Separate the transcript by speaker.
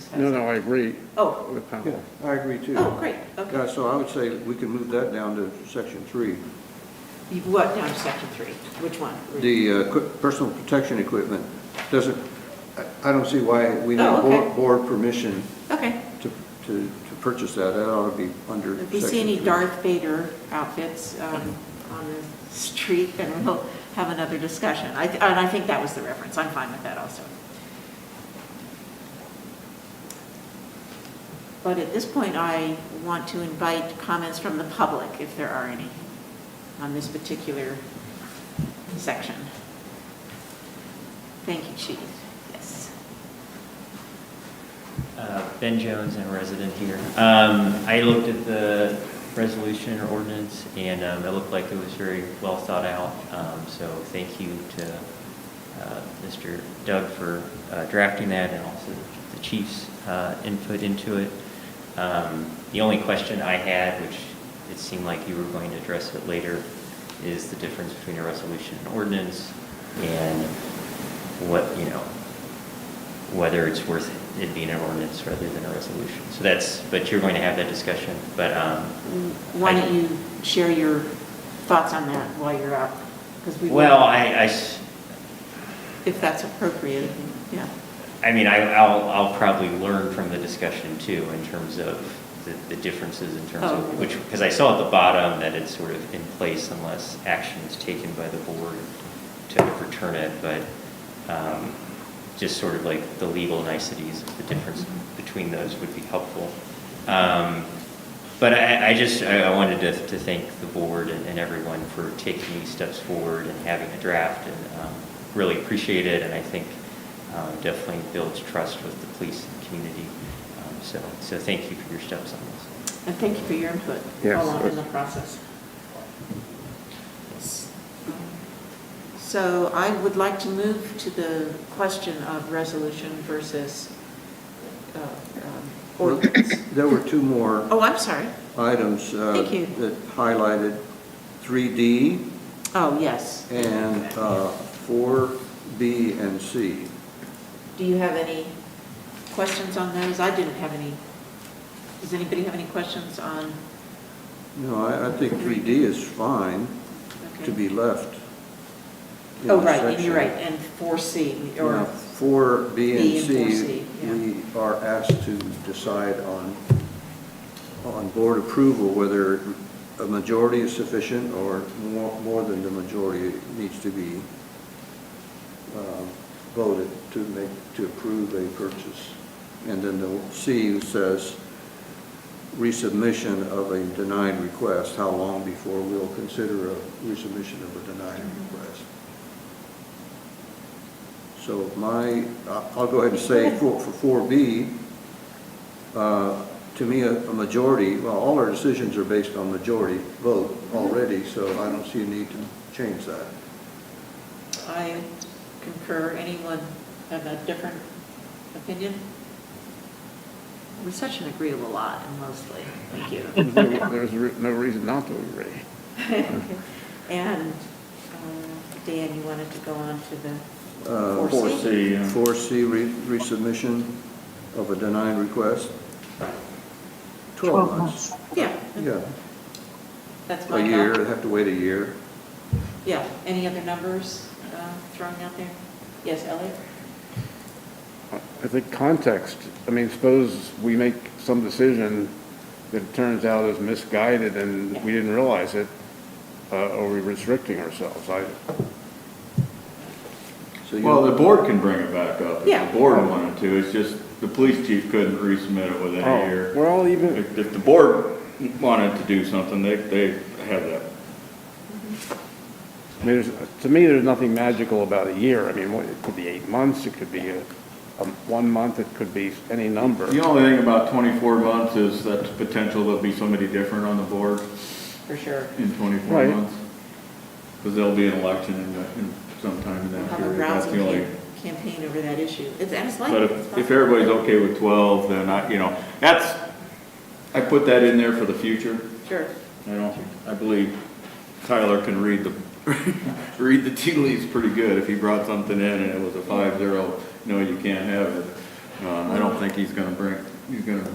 Speaker 1: No,
Speaker 2: expensive.
Speaker 1: no, I agree
Speaker 2: Oh,
Speaker 1: with
Speaker 3: Yeah,
Speaker 1: Powell.
Speaker 3: I agree too.
Speaker 2: oh, great, okay.
Speaker 3: Yeah, so I would say we can move that down to section three.
Speaker 2: You- What, down to section three, which one?
Speaker 3: The uh, equi- personal protection equipment doesn't, I- I don't see why we need
Speaker 2: Oh, okay.
Speaker 3: board- board permission
Speaker 2: Okay,
Speaker 3: to, to, to purchase that. That ought to be under section
Speaker 2: if
Speaker 3: three.
Speaker 2: you see any Darth Vader outfits um, on the street, then we'll have another discussion. I th- And I think that was the reference, I'm fine with that also. But at this point, I want to invite comments from the public, if there are any, on this particular section. Thank you, Chief. Yes.
Speaker 4: Uh, Ben Jones, I'm a resident here. Um, I looked at the resolution or ordinance, and um, it looked like it was very well thought out. Um, So thank you to uh, Mr. Doug for uh, drafting that and also the chief's uh, input into it. Um, The only question I had, which it seemed like you were going to address it later, is the difference between a resolution and ordinance, and what, you know, whether it's worth it being an ordinance rather than a resolution. So that's, but you're going to have that discussion, but, um,
Speaker 2: Why don't you share your thoughts on that while you're out? 'Cause we will,
Speaker 4: well, I, I s-
Speaker 2: If that's appropriate, yeah.
Speaker 4: I mean, I, I'll, I'll probably learn from the discussion too, in terms of the, the differences in terms
Speaker 2: Oh.
Speaker 4: of, which, because I saw at the bottom that it's sort of in place unless action is taken by the board to overturn it, but, um, just sort of like the legal niceties of the difference between those would be helpful. Um, But I, I just, I I wanted to, to thank the board and and everyone for taking these steps forward and having a draft, and um, really appreciate it, and I think um, definitely builds trust with the police and community. Um, So, so thank you for your steps on this.
Speaker 2: And thank you for your input
Speaker 1: Yes.
Speaker 2: along in the process. So I would like to move to the question of resolution versus uh, um, ordinance.
Speaker 3: There were two more
Speaker 2: Oh, I'm sorry.
Speaker 3: items. uh,
Speaker 2: Thank you.
Speaker 3: That highlighted three D
Speaker 2: Oh, yes.
Speaker 3: and uh, four B and C.
Speaker 2: Do you have any questions on those? I didn't have any. Does anybody have any questions on?
Speaker 3: No, I, I think three D is fine to
Speaker 2: okay.
Speaker 3: be left. in
Speaker 2: Oh,
Speaker 3: the
Speaker 2: right, and
Speaker 3: section.
Speaker 2: you're right, and 4C,
Speaker 3: Now,
Speaker 2: or,
Speaker 3: For B
Speaker 2: B
Speaker 3: and
Speaker 2: and four C,
Speaker 3: C,
Speaker 2: yeah.
Speaker 3: we are asked to decide on, on board approval, whether a majority is sufficient or more, more than the majority needs to be um, voted to make, to approve a purchase. And then the C says resubmission of a denied request, how long before we'll consider a resubmission of a denied request. So my, I- I'll go ahead and say for, for 4B, uh, to me, a a majority, well, all our decisions are based on majority vote already, so I don't see a need to change that.
Speaker 2: I concur, anyone have a different opinion? We're such an agreeable lot, and mostly, thank you.
Speaker 1: There's no- There's re- no reason not to agree.
Speaker 2: And, uh, Dan, you wanted to go on to the
Speaker 3: Uh,
Speaker 2: 4C?
Speaker 3: 4C, re- resubmission of a denied request, 12 months.
Speaker 2: Yeah,
Speaker 3: Yeah,
Speaker 2: that's my
Speaker 3: a
Speaker 2: thought.
Speaker 3: year, they have to wait a year.
Speaker 2: Yeah, any other numbers uh, thrown out there? Yes, Elliot?
Speaker 1: I think context, I mean, suppose we make some decision that turns out is misguided and we didn't realize it, uh, or we're restricting ourselves. I,
Speaker 3: So you-
Speaker 5: Well, the board can bring it back up
Speaker 2: Yeah.
Speaker 5: if the board wanted to. It's just the police chief couldn't resubmit it within a
Speaker 1: oh,
Speaker 5: year.
Speaker 1: we're all even,
Speaker 5: If, if the board wanted to do something, they, they have that.
Speaker 1: I mean, there's, to me, there's nothing magical about a year. I mean, what- it could be eight months, it could be a, a, one month, it could be any number.
Speaker 5: The only thing about twenty-four months is that the potential there'll be somebody different on the board
Speaker 2: For sure.
Speaker 5: in twenty-four
Speaker 1: Right.
Speaker 5: months. Because there'll be an election in, that- in sometime in that
Speaker 2: Have a
Speaker 5: period. That's
Speaker 2: rousing
Speaker 5: the only.
Speaker 2: cam- campaign over that issue. It's, and it's like.
Speaker 5: But if, if everybody's okay with twelve, then I, you know, that's, I put that in there for the future.
Speaker 2: Sure.
Speaker 5: I don't, I believe Tyler can read the, read the tea leaves pretty good. If he brought something in and it was a five zero, no, you can't have it, Um, I don't think he's gonna bring, he's gonna